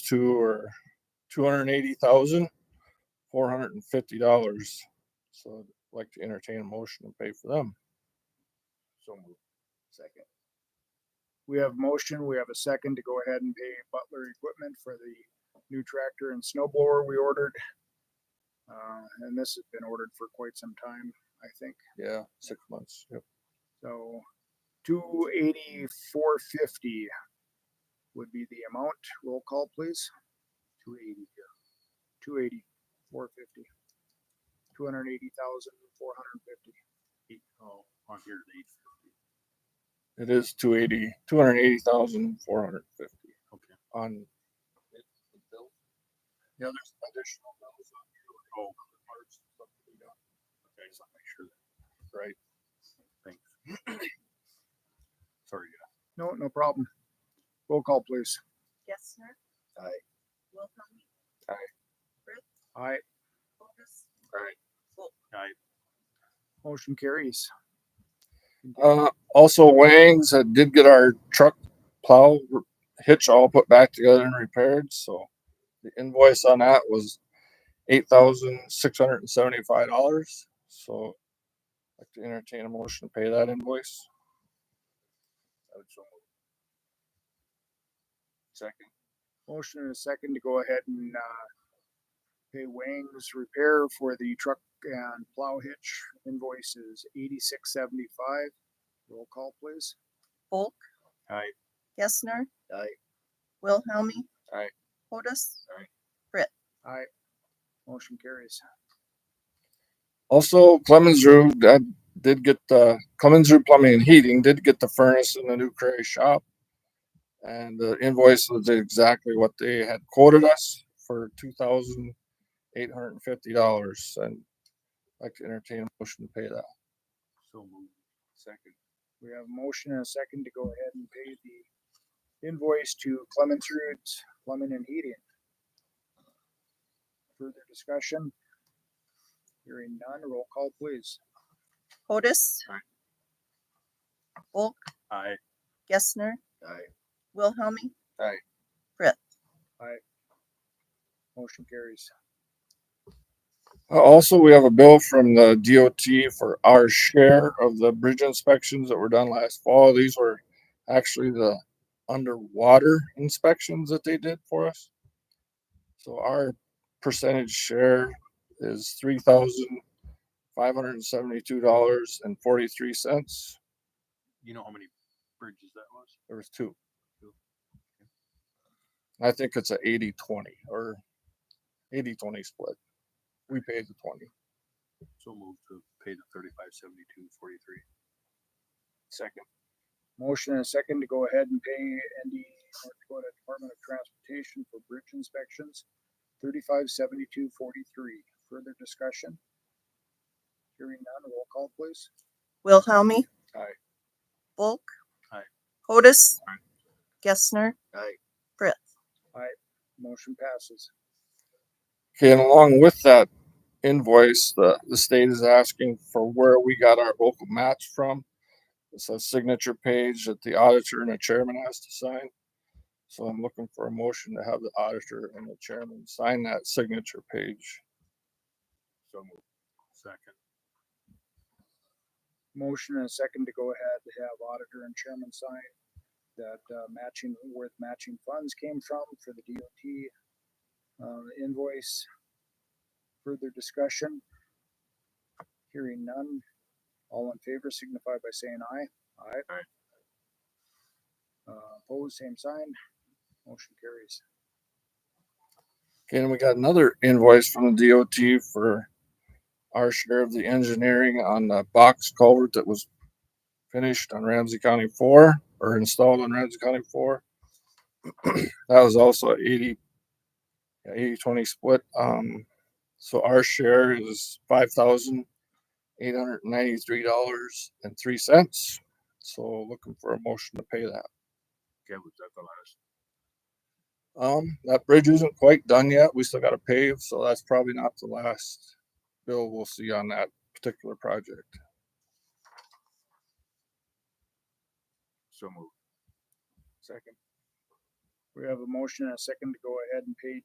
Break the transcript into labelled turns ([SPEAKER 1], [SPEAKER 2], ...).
[SPEAKER 1] to are two hundred and eighty thousand, four hundred and fifty dollars. So I'd like to entertain a motion and pay for them.
[SPEAKER 2] So moved. Second. We have motion, we have a second to go ahead and pay Butler Equipment for the new tractor and snow blower we ordered. Uh, and this has been ordered for quite some time, I think.
[SPEAKER 1] Yeah, six months. Yep.
[SPEAKER 2] So two eighty-four fifty would be the amount. Roll call, please. Two eighty here. Two eighty, four fifty. Two hundred and eighty thousand, four hundred and fifty. Eight, oh, on here, eight fifty.
[SPEAKER 1] It is two eighty, two hundred and eighty thousand, four hundred and fifty.
[SPEAKER 2] Okay.
[SPEAKER 1] On. Yeah, there's additional bills on here. Oh.
[SPEAKER 2] Okay, just wanna make sure that.
[SPEAKER 1] Right.
[SPEAKER 2] Thanks. Sorry. No, no problem. Roll call, please.
[SPEAKER 3] Gessner.
[SPEAKER 2] Aye.
[SPEAKER 3] Wilhelm.
[SPEAKER 1] Aye.
[SPEAKER 3] Brett.
[SPEAKER 2] Aye.
[SPEAKER 3] Otis.
[SPEAKER 1] Aye.
[SPEAKER 3] Volk.
[SPEAKER 2] Motion carries.
[SPEAKER 1] Uh, also Wangs, I did get our truck plow r- hitch all put back together and repaired, so the invoice on that was eight thousand six hundred and seventy-five dollars, so I'd like to entertain a motion to pay that invoice. Second.
[SPEAKER 2] Motion and a second to go ahead and, uh, pay Wang's repair for the truck and plow hitch invoice is eighty-six seventy-five. Roll call, please.
[SPEAKER 3] Volk.
[SPEAKER 2] Aye.
[SPEAKER 3] Gessner.
[SPEAKER 2] Aye.
[SPEAKER 3] Wilhelmie.
[SPEAKER 1] Aye.
[SPEAKER 3] Otis.
[SPEAKER 2] Motion carries.
[SPEAKER 1] Also, Clemens Rue, I did get the Clemens Rue Plumbing and Heating did get the furnace in the new Cray shop. And the invoice was exactly what they had quoted us for two thousand eight hundred and fifty dollars and I'd like to entertain a motion to pay that.
[SPEAKER 2] So moved. Second. We have a motion and a second to go ahead and pay the invoice to Clemens Roots Plumbing and Heating. Further discussion? Hearing none, roll call please.
[SPEAKER 3] Otis. Volk.
[SPEAKER 2] Aye.
[SPEAKER 3] Gessner.
[SPEAKER 2] Aye.
[SPEAKER 3] Wilhelmie.
[SPEAKER 2] Motion carries.
[SPEAKER 1] Uh, Also, we have a bill from the DOT for our share of the bridge inspections that were done last fall. These were actually the underwater inspections that they did for us. So our percentage share is three thousand five hundred and seventy-two dollars and forty-three cents.
[SPEAKER 4] you know how many bridges that was?
[SPEAKER 1] There was two. I think it's a 80-20 or 80-20 split. We paid the twenty.
[SPEAKER 4] So moved to pay the thirty-five seventy-two forty-three.
[SPEAKER 1] Second.
[SPEAKER 2] Motion and a second to go ahead and pay ND North Dakota Department of Transportation for bridge inspections, thirty-five seventy-two forty-three. Further discussion? Hearing none, roll call please.
[SPEAKER 3] Wilhelmie.
[SPEAKER 1] Aye.
[SPEAKER 3] Volk.
[SPEAKER 4] Aye.
[SPEAKER 3] Otis.
[SPEAKER 4] Aye.
[SPEAKER 3] Gessner.
[SPEAKER 2] Aye.
[SPEAKER 3] Brett.
[SPEAKER 2] Motion passes.
[SPEAKER 1] Okay, and along with that invoice, the, the state is asking for where we got our local match from. It's a signature page that the auditor and the chairman has to sign. So I'm looking for a motion to have the auditor and the chairman sign that signature page.
[SPEAKER 4] So moved. Second.
[SPEAKER 2] Motion and a second to go ahead to have auditor and chairman sign that uh, matching, where the matching funds came from for the DOT uh, invoice. Further discussion? Hearing none. All in favor signify by saying aye. Aye.
[SPEAKER 4] Aye.
[SPEAKER 2] Uh, Opposed, same sign. Motion carries.
[SPEAKER 1] Okay, and we got another invoice from the DOT for our share of the engineering on the box culvert that was finished on Ramsey County four or installed on Ramsey County four. That was also 80 yeah, 80 20 split. Um, so our share is five thousand eight hundred ninety-three dollars and three cents. So looking for a motion to pay that.
[SPEAKER 4] Okay, was that the last?
[SPEAKER 1] Um, that bridge isn't quite done yet. We still gotta pave, so that's probably not the last bill we'll see on that particular project.
[SPEAKER 4] So moved. Second.
[SPEAKER 2] We have a motion and a second to go ahead and pay